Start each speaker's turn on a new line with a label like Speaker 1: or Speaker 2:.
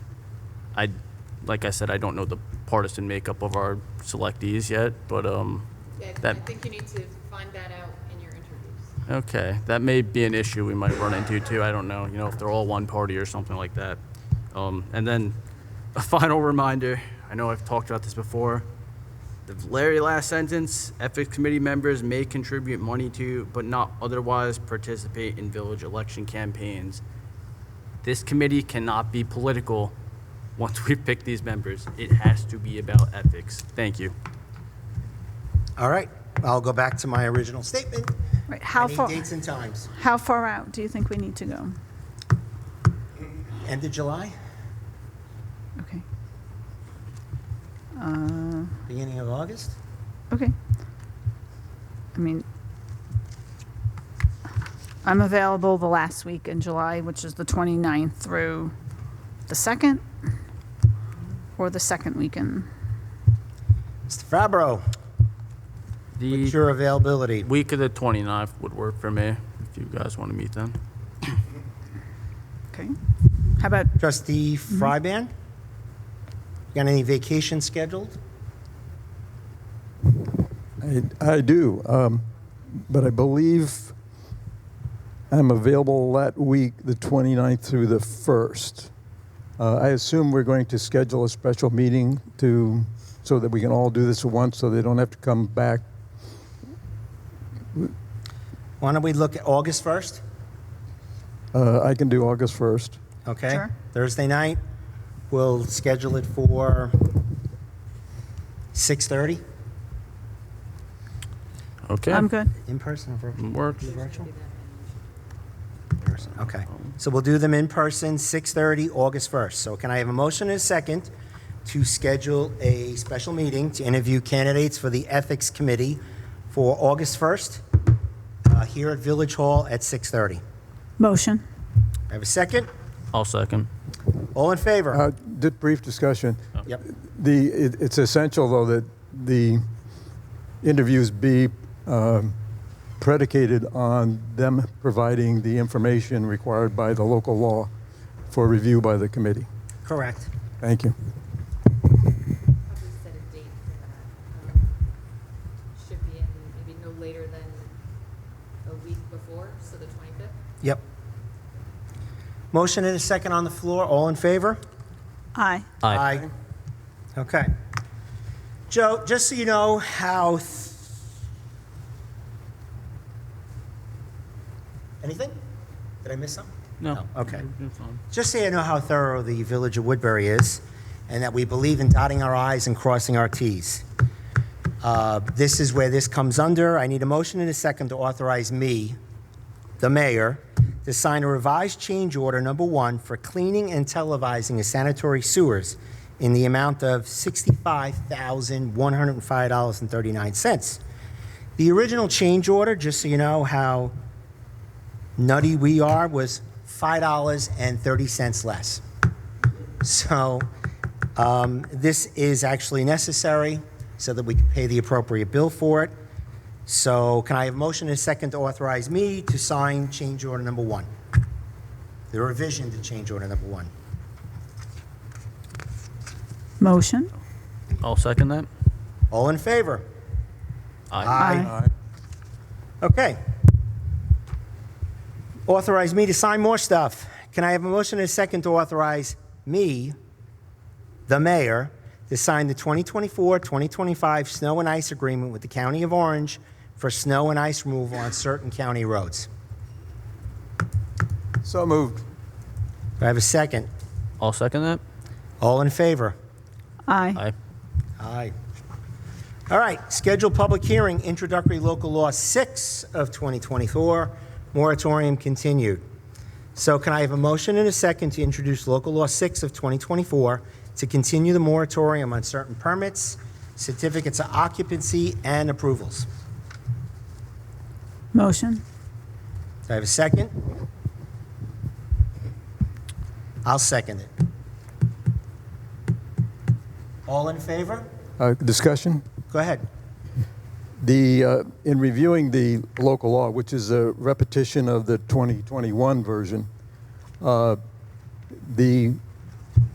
Speaker 1: I, like I said, I don't know the partisan makeup of our selectees yet, but, um,
Speaker 2: Yeah, I
Speaker 1: That-
Speaker 2: think you need to find that out in your interviews.
Speaker 1: okay, that may be an issue we might run into too. I don't know, you know, if they're all one party or something like that. Um, and then a final reminder, I know I've talked about this before. The very last sentence, ethics committee members may contribute money to, but not otherwise participate in village election campaigns. This committee cannot be political once we pick these members. It has to be about ethics. Thank you.
Speaker 3: All right, I'll go back to my original statement.
Speaker 4: Right, How far,
Speaker 3: Any dates and times?
Speaker 4: how far out do you think we need to go?
Speaker 3: End of July,
Speaker 4: Okay,
Speaker 3: beginning of August?
Speaker 4: okay. I mean, I'm available the last week in July, which is the 29th through the 2nd, or the second weekend.
Speaker 3: Mr. Fabro, what's
Speaker 1: The
Speaker 3: your availability?
Speaker 1: week of the 29th would work for me, if you guys want to meet then.
Speaker 4: Okay. How about,
Speaker 3: Trustee
Speaker 4: Mm-hmm.
Speaker 3: Fryban? Got any vacation scheduled?
Speaker 5: I, I do, um, but I believe I'm available that week, the 29th through the 1st. Uh, I assume we're going to schedule a special meeting to, so that we can all do this at once, so they don't have to come back.
Speaker 3: Why don't we look at August 1st?
Speaker 5: Uh, I can do August 1st.
Speaker 3: Okay?
Speaker 4: Sure.
Speaker 3: Thursday night, we'll schedule it for 6:30
Speaker 1: Okay.
Speaker 4: I'm good.
Speaker 3: in person or virtual?
Speaker 1: Works.
Speaker 3: Virtual? Person, okay. So we'll do them in person, 6:30, August 1st. So can I have a motion and a second to schedule a special meeting to interview candidates for the Ethics Committee for August 1st uh, here at Village Hall at 6:30?
Speaker 4: Motion.
Speaker 3: I have a second?
Speaker 1: I'll second.
Speaker 3: All in favor?
Speaker 5: Uh, did brief discussion.
Speaker 3: Yep.
Speaker 5: The, it, it's essential, though, that the interviews be um, predicated on them providing the information required by the local law for review by the committee.
Speaker 3: Correct.
Speaker 5: Thank you.
Speaker 2: Probably set a date for that. Um, Should be in maybe no later than a week before, so the 25th.
Speaker 3: Yep. Motion and a second on the floor. All in favor?
Speaker 4: Aye.
Speaker 1: Aye.
Speaker 3: Okay. Joe, just so you know how. th- Anything? Did I miss something?
Speaker 1: No.
Speaker 3: Okay. Just so you know how thorough the Village of Woodbury is, and that we believe in dotting our i's and crossing our t's. Uh, This is where this comes under. I need a motion and a second to authorize me, the mayor, to sign a revised change order number one for cleaning and televising of sanitary sewers in the amount of $65,105.39. The original change order, just so you know how nutty we are, was $5.30 less. So um, this is actually necessary so that we can pay the appropriate bill for it. So can I have a motion and a second to authorize me to sign change order number one? The revision to change order number one.
Speaker 4: Motion.
Speaker 1: I'll second that.
Speaker 3: All in favor?
Speaker 1: Aye.
Speaker 3: Okay. Authorize me to sign more stuff. Can I have a motion and a second to authorize me, the mayor, to sign the 2024-2025 snow and ice agreement with the County of Orange for snow and ice removal on certain county roads?
Speaker 5: So moved.
Speaker 3: Do I have a second?
Speaker 1: I'll second that.
Speaker 3: All in favor?
Speaker 4: Aye.
Speaker 1: Aye.
Speaker 3: Aye. All right, scheduled public hearing, introductory local law 6 of 2024, moratorium continued. So can I have a motion and a second to introduce local law 6 of 2024 to continue the moratorium on certain permits, certificates of occupancy, and approvals?
Speaker 4: Motion.
Speaker 3: Do I have a second? I'll second it. All in favor?
Speaker 5: Uh, discussion?
Speaker 3: Go ahead.
Speaker 5: The, uh, in reviewing the local law, which is a repetition of the 2021 version, uh, the